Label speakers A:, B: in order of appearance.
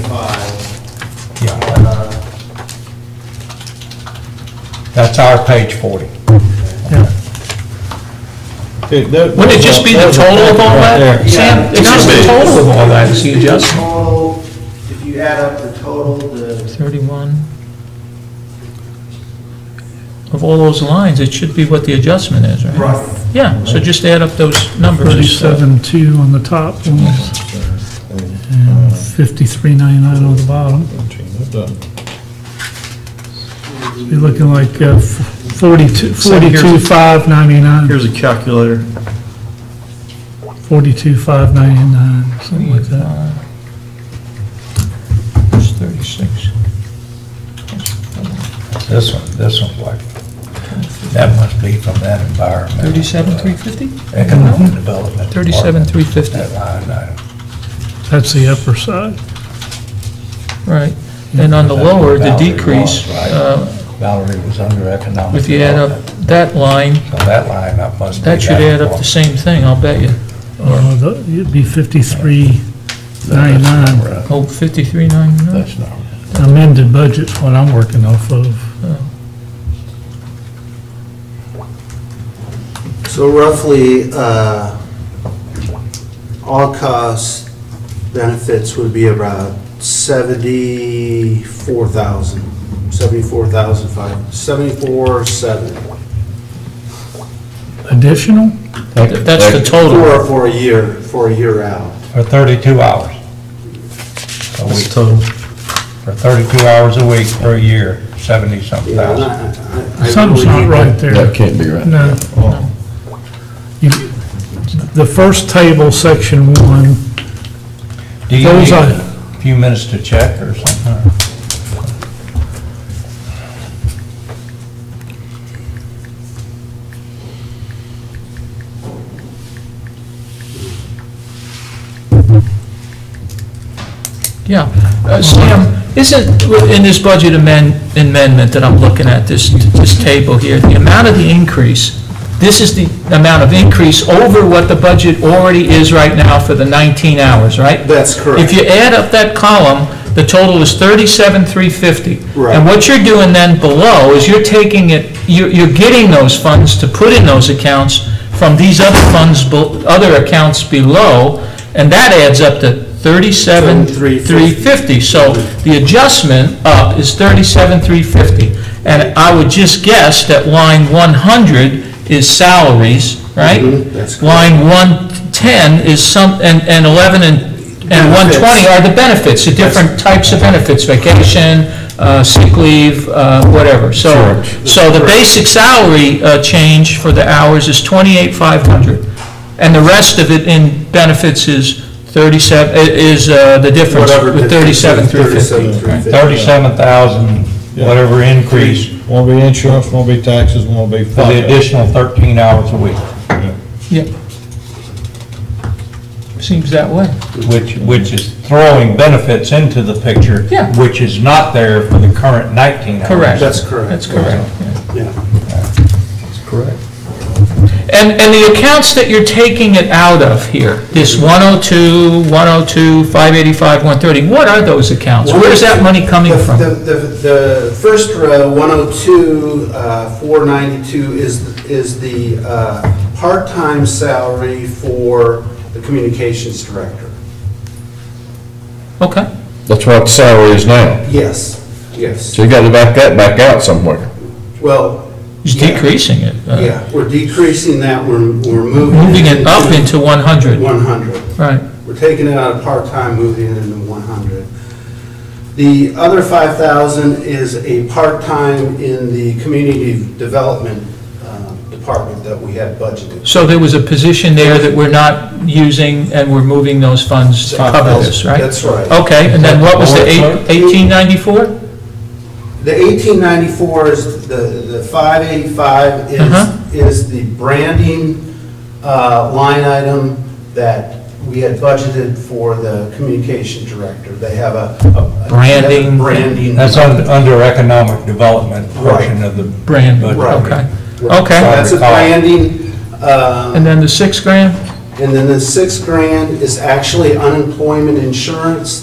A: 35.
B: Yeah,
A: uh,
B: that's our page 40.
C: Wouldn't it just be the total of all that, Sam? It's just the total of all that, so you adjust.
A: Total, if you add up the total, the,
C: 31. Of all those lines, it should be what the adjustment is, right?
A: right,
C: Yeah, so just add up those numbers and stuff.
D: Thirty-seven two on the top, fifty-three ninety-nine on the bottom. You're looking like uh, f- forty-two,
E: So here's-
D: forty-two five ninety-nine,
E: Here's a calculator.
D: forty-two five ninety-nine, something like that.
C: It's 36.
B: This one, this one's like, that must be from that environment.
C: 37, 350?
B: Economic development.
C: 37, 350,
B: That line item.
D: That's the upper side.
C: right. And on the lower, the decrease, uh,
B: Valerie was under economic.
C: if you add up
B: development.
C: that line,
B: So that line up must be.
C: that should add up the
B: one.
C: same thing, I'll bet you.
D: Uh, the- It'd be fifty-three
B: That's not
D: ninety-nine
B: right.
C: Oh, 53.99?
B: That's not, right.
D: amended budget's what I'm working off of.
A: so roughly, uh, all costs, benefits would be about 74,000, 74,005, 74,700
D: Additional?
C: That's the total.
A: for, for a year, for a year out.
B: for 32 hours. a
E: That's
B: week.
E: total.
B: For 32 hours a week for a year, 70-something
A: Yeah, and
B: thousand.
A: I- I- I- I
D: Something's
A: really-
D: not right there.
F: That can't be right.
D: No. You- The first table, section one,
B: Do you
D: Those
B: need
D: are-
B: a few minutes to check or something?
C: Yeah. Uh, Sam, isn't, in this budget amend- amendment that I'm looking at, this, this table here, the amount of the increase, this is the amount of increase over what the budget already is right now for the 19 hours, right?
A: That's correct.
C: If you add up that column, the total is 37,350.
A: Right.
C: And what you're doing then below is you're taking it, you're you're getting those funds to put in those accounts from these other funds, bel- other accounts below, and that adds up to 37,350. So the adjustment up is 37,350. And I would just guess that line 100 is salaries, right?
A: Mhm, that's correct.
C: Line 110 is some, and and 11 and and
A: Benefits.
C: 120 are the benefits, the different types of benefits, vacation, uh, sick leave, uh, whatever. So, so the basic salary uh, change for the hours is 28,500. And the rest of it in benefits is 37, i- is uh, the difference
A: Whatever.
C: with 37,350.
A: 37,350.
B: 37,000, whatever increase
G: Won't be insurance, won't be taxes, won't be.
B: for the additional 13 hours a week,
C: Yeah. Seems that way.
B: which, which is throwing benefits into the picture.
C: Yeah.
B: Which is not there for the current 19 hours.
C: Correct.
A: That's correct.
C: That's correct.
A: Yeah.
C: And, and the accounts that you're taking it out of here, this 102, 102, 585, 130, what are those accounts? Where is that money coming
A: The- The,
C: from?
A: the, the first row, 102, uh, 492 is, is the uh, part-time salary for the communications director.
C: Okay,
F: That's what the salary is now.
A: Yes, yes.
F: So you gotta back that back out somewhere.
A: Well,
C: it's
A: Yeah.
C: decreasing it. uh,
A: yeah, we're decreasing that, we're, we're moving.
C: Moving it up into 100,
A: 100.
C: right.
A: We're taking it out of part-time, moving it into 100. The other 5,000 is a part-time in the community development um, department that we had budgeted.
C: So there was a position there that we're not using, and we're moving those funds to cover this, right? Oh.
A: That's right.
C: Okay, and then what was the eight- 1894?
A: The 1894 is, the the 585
C: Uh-huh.
A: is, is the branding uh, line item that we had budgeted for the communication director. They have a- a. a-
C: Branding.
A: Branding.
B: That's un- under economic development portion
A: Right.
B: of the.
C: Brand,
B: budget.
A: Right.
C: okay,
A: Right.
C: okay.
A: That's a branding. um,
C: And then the six grand?
A: And then the six grand is actually unemployment insurance